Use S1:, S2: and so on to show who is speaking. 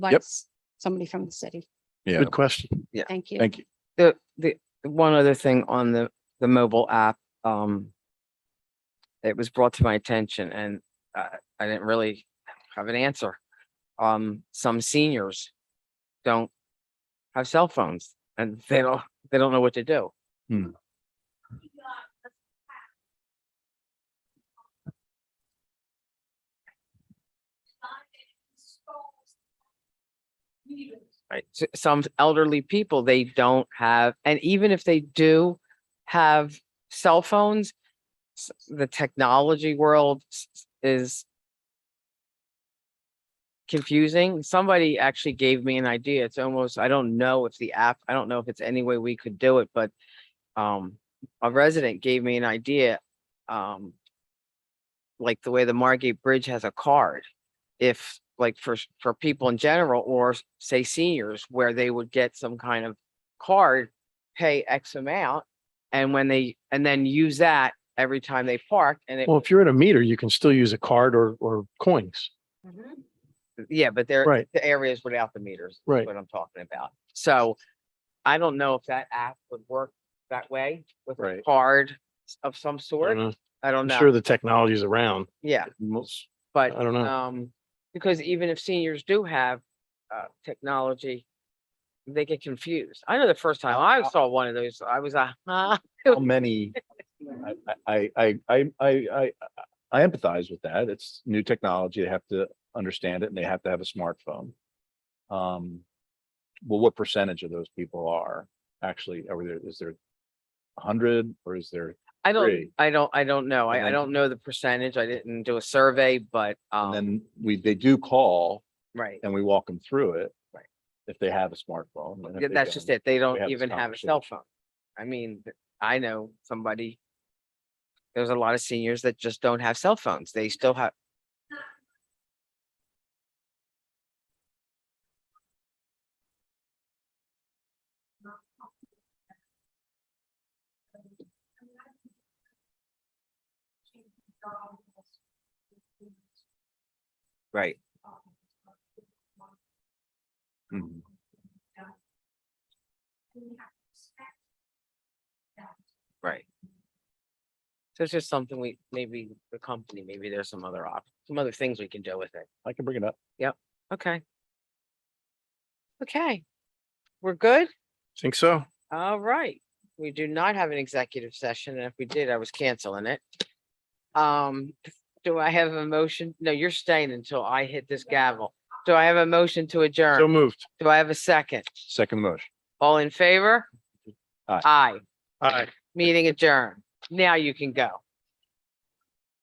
S1: like somebody from the city.
S2: Yeah,
S3: Good question.
S1: Thank you.
S2: thank you.
S4: The, the, one other thing on the, the mobile app, um. It was brought to my attention and I, I didn't really have an answer. Um, some seniors don't have cell phones and they don't, they don't know what to do.
S2: Hmm.
S4: Right, s- some elderly people, they don't have, and even if they do have cell phones. s- The technology world s- s- is. Confusing. Somebody actually gave me an idea. It's almost, I don't know if the app, I don't know if it's any way we could do it, but. Um, a resident gave me an idea, um. Like the way the Margate Bridge has a card if like for s- for people in general or s- say seniors where they would get some kind of card pay x amount and when they and then use that every time they park and it
S3: Well, if you're at a meter, you can still use a card or, or coins.
S4: yeah but they're
S3: Right.
S4: the areas without the meters is
S3: Right.
S4: what i'm talking about so i don't know if that app would work that way with a
S3: Right.
S4: card s- of some
S3: I
S4: sort
S3: don't know.
S4: i don't
S3: I'm
S4: know
S3: sure the technology's around.
S4: yeah
S3: Most- I
S4: but
S3: don't know.
S4: Um, because even if seniors do have, uh, technology, they get confused. I know the first time I saw one of those, I was, uh, huh?
S5: how many, I, I, I, I, I, I- I empathize with that. It's new technology. They have to understand it and they have to have a smartphone. Um, well, what percentage of those people are actually, are there, is there a hundred or is there?
S4: I don't,
S5: Three.
S4: I don't, I don't know.
S5: And
S4: I, I
S5: then-
S4: don't know the percentage. I didn't do a survey, but,
S5: And
S4: um,
S5: then we, they do call
S4: right.
S5: and we walk them through it.
S4: Right.
S5: If they have a smartphone. and if
S4: Yeah,
S5: they
S4: That's just
S5: don't,
S4: it. They
S5: have
S4: don't
S5: this
S4: even have a cell phone. I mean, th- I know somebody. There's a lot of seniors that just don't have cell phones. They still have. Right.
S5: Mhm.
S4: Right. So it's just something we, maybe the company, maybe there's some other op, some other things we can do with it.
S5: I can bring it up.
S4: Okay. Okay. We're good?
S3: Think so?
S4: All right. We do not have an executive session. And if we did, I was canceling it. Um, do I have a motion? No, you're staying until I hit this gavel. Do I have a motion to
S3: So
S4: adjourn?
S3: moved.
S4: Do I have a second?
S5: Second motion.
S4: All in favor?
S5: Aye.
S4: Aye.
S3: Aye.
S4: Meeting adjourned. Now you can go.